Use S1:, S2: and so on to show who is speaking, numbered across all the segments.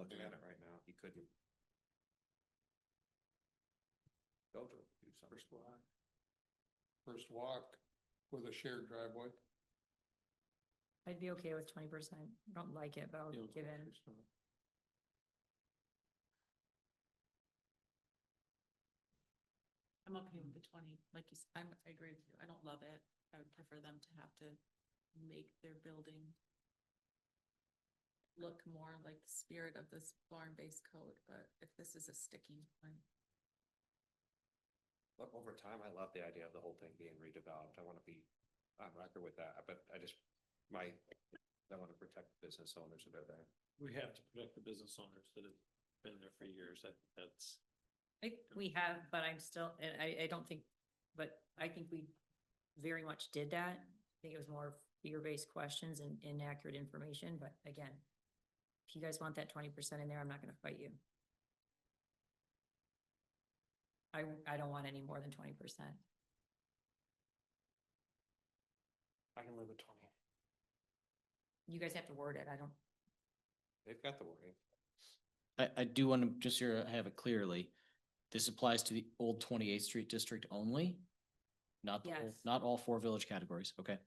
S1: looking at it right now, he couldn't. Go to, do something.
S2: First walk. First walk with a shared driveway.
S3: I'd be okay with twenty percent. Don't like it, but I'll
S2: you know,
S3: give in.
S2: just, uh,
S4: I'm okay with the twenty, like you, s- I'm, I agree with you, I don't love it, I would prefer them to have to make their building look more like the spirit of this barn-based code, but if this is a sticking point,
S1: Look, over time, I love the idea of the whole thing being redeveloped. I wanna be on record with that, but I just, my, I wanna protect business owners that are there.
S5: We have to protect the business owners that have been there for years, that, that's.
S3: I, we have, but I'm still, and I, I don't think, but I think we very much did that. I think it was more fear-based questions and inaccurate information, but again, if you guys want that twenty percent in there, I'm not gonna fight you. I, I don't want any more than twenty percent.
S5: I can live with twenty.
S3: You guys have to word it. I don't,
S1: They've got the wording.
S6: I, I do want to, just here, have it clearly, this applies to the old twenty-eighth street district only? Not, the whole-
S3: Yes.
S6: not all four village categories, okay?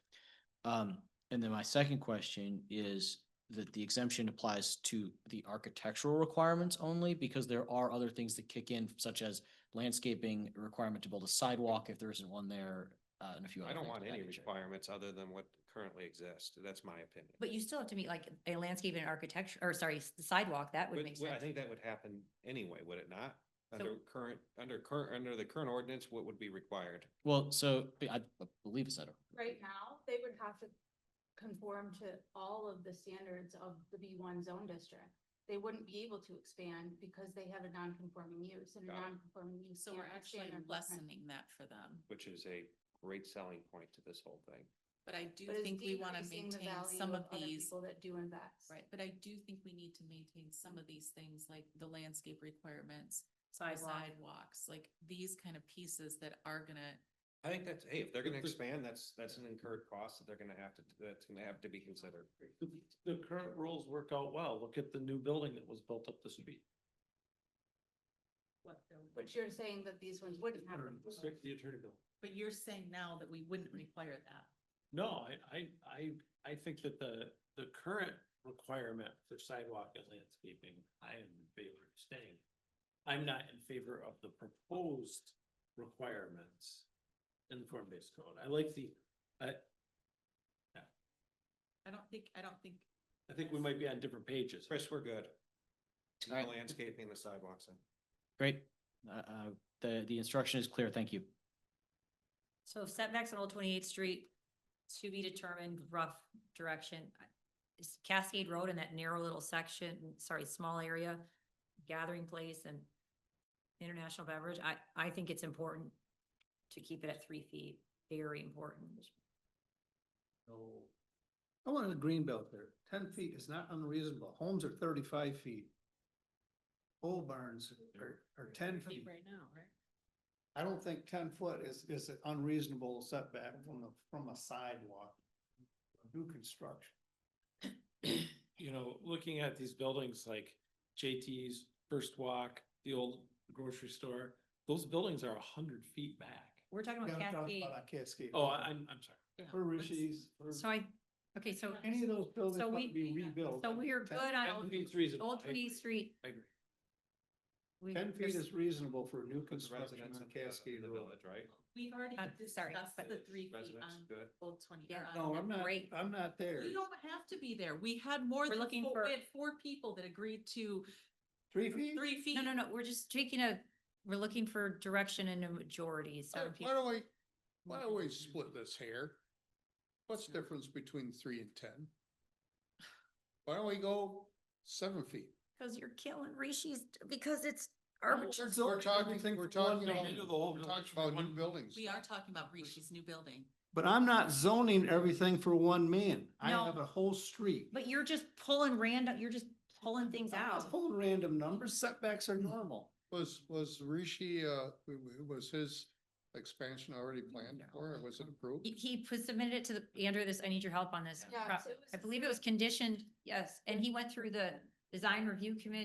S6: Um, and then my second question is that the exemption applies to the architectural requirements only? Because there are other things that kick in such as landscaping, a requirement to build a sidewalk if there isn't one there, uh, and a few other
S1: I don't
S6: things
S1: want
S6: of that
S1: any
S6: nature.
S1: requirements other than what currently exists. That's my opinion.
S3: but you still have to meet like a landscape and architecture, or sorry, s- sidewalk. That would
S1: But-
S3: make
S1: well, I
S3: sense.
S1: think that would happen anyway, would it not?
S3: So-
S1: Under current, under current, under the current ordinance, what would be required?
S6: Well, so, but I I believe it's that.
S7: right now, they would have to conform to all of the standards of the B one zone district. They wouldn't be able to expand because they have a non-conforming use and a
S1: Got it.
S7: non-conforming use.
S4: so we're
S7: can't
S4: actually
S7: expand their footprint.
S4: lessening that for them.
S1: Which is a great selling point to this whole thing.
S4: But I do
S7: But it's
S4: think we wanna
S7: decreasing the
S4: maintain
S7: value
S4: some of
S7: other
S4: these
S7: People that do invest.
S4: Right, but I do think we need to maintain some of these things, like the landscape requirements, the
S3: Sidewalk.
S4: sidewalks, like these kind of pieces that are gonna,
S1: I think that's, hey, if they're gonna
S5: But the-
S1: expand, that's, that's an incurred cost that they're gonna have to, that's gonna have to be considered.
S5: The, the current rules work out well. Look at the new building that was built up the street.
S7: But you're saying that these ones wouldn't have.
S5: Restrict The attorney bill.
S4: but you're saying now that we wouldn't require that.
S5: No, I, I, I, I think that the, the current requirement for sidewalk and landscaping, I am in favor of staying. I'm not in favor of the proposed requirements in the form-based code. I like the, I,
S4: I don't think, I don't think,
S5: I think we might be on different pages.
S1: Chris, we're good. The
S6: Alright.
S1: landscaping, the sidewalks, and
S6: Great, uh, uh, the, the instruction is clear, thank you.
S3: So setbacks on Old Twenty-Eighth Street, to be determined rough direction. Is Cascade Road in that narrow little section, sorry, small area, gathering place and international beverage, I, I think it's important to keep it at three feet, very important.
S8: No. I wanted a green belt there. Ten feet is not unreasonable. Homes are thirty-five feet. Old barns are, are ten feet.
S4: right now, right?
S8: I don't think ten foot is, is an unreasonable setback from the, from a sidewalk. New construction.
S5: you know, looking at these buildings like JT's, First Walk, the old grocery store, those buildings are a hundred feet back.
S3: We're talking
S8: Gotta
S3: about
S8: talk about
S3: Cascade,
S8: that Cascade.
S5: Oh, I- I'm, I'm sorry.
S8: For Rishi's, for
S3: so I, okay, so,
S8: any of those buildings
S3: So
S8: that
S3: we-
S8: be rebuilt.
S3: so we are
S8: 10
S3: good on
S5: I
S3: Old-
S5: think it's reasonable.
S3: Old
S5: I-
S3: Twenty-Eighth Street.
S5: I agree.
S3: we-
S8: Ten feet is reasonable for new
S1: the
S8: construction
S1: residents
S8: on
S1: of the-
S8: Cascade
S1: the
S8: Road.
S1: village, right?
S4: We've already
S3: Uh, sorry,
S4: discussed
S3: but-
S4: the three feet
S1: Residents,
S4: on
S1: good.
S4: Old Twenty.
S3: Yeah.
S4: or on-
S8: No, I'm not,
S3: Great.
S8: I'm not there.
S4: We don't have to be there. We had more
S3: We're
S4: than,
S3: looking
S4: four-
S3: for-
S4: we had four people that agreed to
S8: Three feet?
S4: three feet.
S3: No, no, no, we're just taking a, we're looking for direction and a majority, so.
S2: Why
S3: if you-
S2: why don't we, why don't we split this hair? What's the difference between three and ten? Why don't we go seven feet?
S3: Cause you're killing Rishi's, because it's
S2: We're we're talking, we're talking,
S5: Do the
S2: about-
S5: whole
S2: we're
S5: village
S2: talking
S5: for
S2: about
S5: one-
S2: new buildings.
S4: We are talking about Rishi's new building.
S8: But I'm not zoning everything for one man. I
S3: No.
S8: have a whole street.
S3: But you're just pulling random, you're just pulling things
S8: I'm not
S3: out.
S8: Pulling random numbers, setbacks are normal.
S2: Was, was Rishi, uh, w- w- was his expansion already planned for, or was it approved?
S3: He, he put- submitted it to the, Andrew, this, I need your help on this.
S7: Yeah,
S3: Pro-
S7: so it was
S3: I believe it was conditioned, yes, and he went through the design review committee